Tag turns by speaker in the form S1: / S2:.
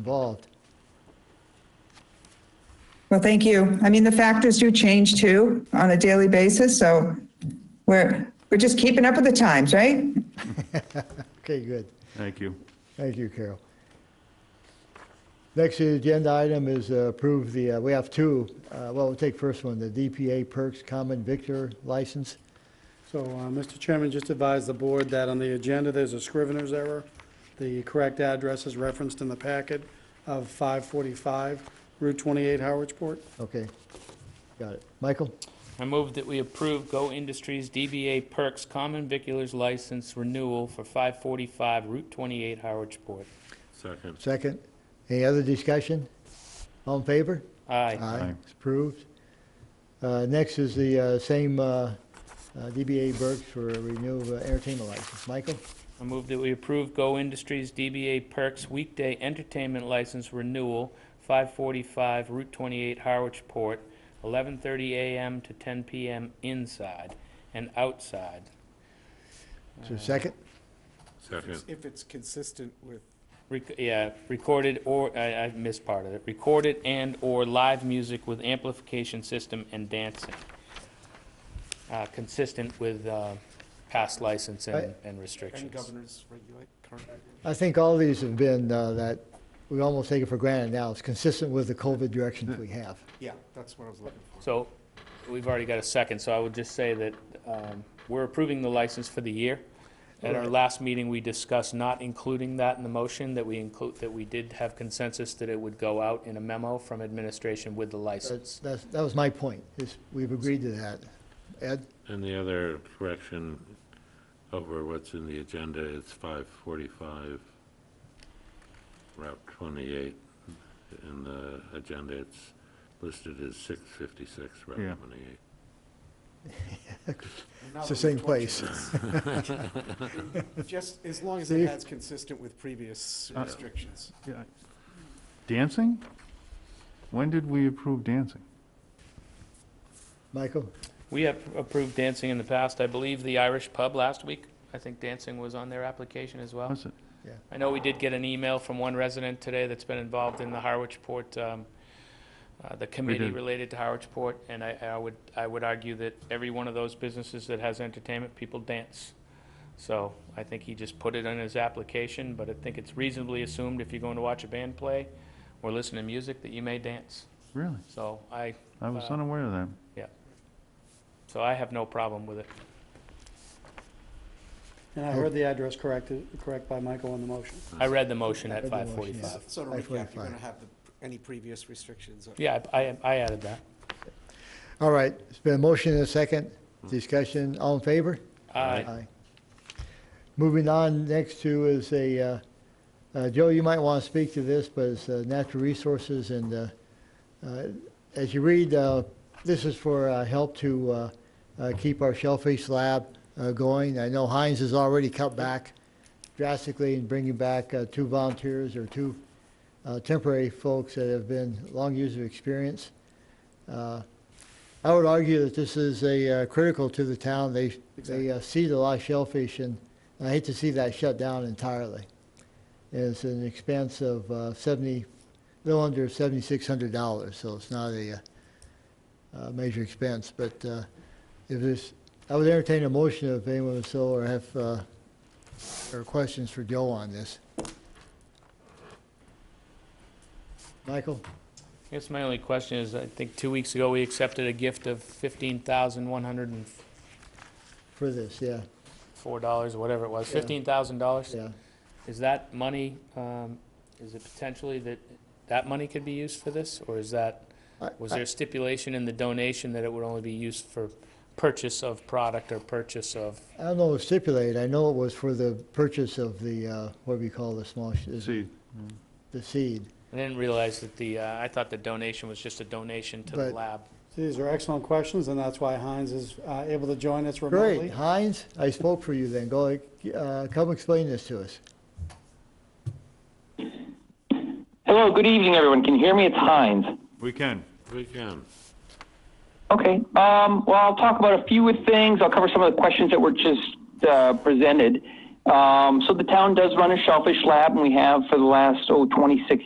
S1: involved.
S2: Well, thank you. I mean, the factors do change too on a daily basis, so we're, we're just keeping up with the times, right?
S1: Okay, good.
S3: Thank you.
S1: Thank you, Carol. Next agenda item is uh, approve the, uh, we have two, Uh, well, we'll take first one, the DPA Perks Common Victor license.
S4: So, uh, Mr. Chairman, just advise the board that on the agenda, there's a scrivener's error. The correct address is referenced in the packet of 545 Route 28, Howardsport.
S1: Okay, got it. Michael,
S5: I move that we approve Go Industries DBA Perks Common Viculars License Renewal for 545 Route 28 Howardsport.
S3: Second.
S1: second. Any other discussion? All in favor?
S5: Aye.
S3: Aye.
S1: It's approved. Uh, Next is the uh, same uh, uh, DBA Burks for renew uh, entertainment license. Michael,
S5: I move that we approve Go Industries DBA Perks Weekday Entertainment License Renewal, 545 Route 28 Howardsport, 11:30 a.m. to 10 p.m. inside and outside.
S1: is there a second?
S3: Second.
S6: If it's consistent with,
S5: Rec- Yeah, recorded or, I I missed part of it, recorded and/or live music with amplification system and dancing, Uh, consistent with uh, past license and and
S6: and
S5: restrictions.
S6: governors regulate current.
S1: I think all these have been uh, that, we almost take it for granted now. It's consistent with the COVID directions we have.
S6: Yeah, that's what I was looking for.
S5: So, we've already got a second, so I would just say that um, we're approving the license for the year. At our last meeting, we discussed not including that in the motion, that we include, that we did have consensus that it would go out in a memo from administration with the
S1: That's,
S5: license.
S1: that's, that was my point, is we've agreed to that. Ed,
S3: And the other correction over what's in the agenda is 545 Route 28. In the agenda, it's listed as 656
S7: Yeah.
S3: Route 28.
S6: Now
S1: It's
S6: that
S1: the
S6: we've
S1: same place.
S6: tortured- Just as long as it
S1: See? Uh,
S6: has consistent with previous restrictions.
S7: Yeah. Dancing? When did we approve dancing?
S1: Michael,
S5: We have approved dancing in the past, I believe the Irish pub last week, I think dancing was on their application as well.
S7: Was it?
S5: I know we did get an email from one resident today that's been involved in the Harwichport, um, uh, the committee
S7: did.
S5: related to Harwichport, and I, I would, I would argue that every one of those businesses that has entertainment, people dance. So I think he just put it on his application, but I think it's reasonably assumed if you're going to watch a band play or listen to music that you may dance.
S7: Really?
S5: So I,
S7: I was
S5: Uh,
S7: unaware of that.
S5: so I have no problem with it.
S4: And I heard the address corrected, correct by Michael on the motion.
S5: I read the motion
S1: I
S5: at
S1: read the motion,
S5: five
S1: yeah.
S5: forty-five.
S6: So to
S1: I
S6: recap, you're
S1: 45.
S6: going to have the, any previous restrictions. or-
S5: Yeah, I, I- I added that.
S1: all right, it's been a motion and a second, discussion, all in favor?
S5: Aye.
S1: Moving on, next to is a, uh, uh, Joe, you might want to speak to this, but it's uh, natural resources and uh, uh, as you read, uh, this is for uh, help to uh, uh, keep our shellfish lab uh, going. I know Heinz has already cut back drastically in bringing back uh, two volunteers or two uh, temporary folks that have been long years of experience. Uh, I would argue that this is a uh, critical to the town. They, they uh, seed a lot of shellfish, and I hate to see that shut down entirely. And It's an expense of uh, 70, a little under $7,600, so it's not a uh, uh, major expense. But uh, if there's, I would entertain a motion if anyone would so, or have, uh, or questions for Joe on this. Michael?
S5: I guess my only question is, I think two weeks ago, we accepted a gift of fifteen thousand one hundred and
S1: For this, yeah,
S5: four dollars, whatever it was,
S1: Yeah.
S5: fifteen thousand dollars.
S1: yeah.
S5: Is that money, um, is it potentially that, that money could be used for this? Or is that,
S1: I-
S5: was
S1: I-
S5: there stipulation in the donation that it would only be used for purchase of product or purchase of?
S1: I don't know, stipulate, I know it was for the purchase of the, uh, what do you call the small, sh- is it
S7: See,
S1: the seed.
S5: I didn't realize that the, uh, I thought the donation was just a donation to the
S1: But-
S5: lab.
S4: These are excellent questions, and that's why Heinz is uh, able to join us remotely.
S1: Great, Heinz, I spoke for you then, go, uh, come explain this to us.
S8: Hello, good evening, everyone. Can you hear me? It's Heinz.
S7: we can.
S3: We can.
S8: Okay. Um, well, I'll talk about a few of things. I'll cover some of the questions that were just uh, presented. Um, so the town does run a shellfish lab, and we have for the last oh 26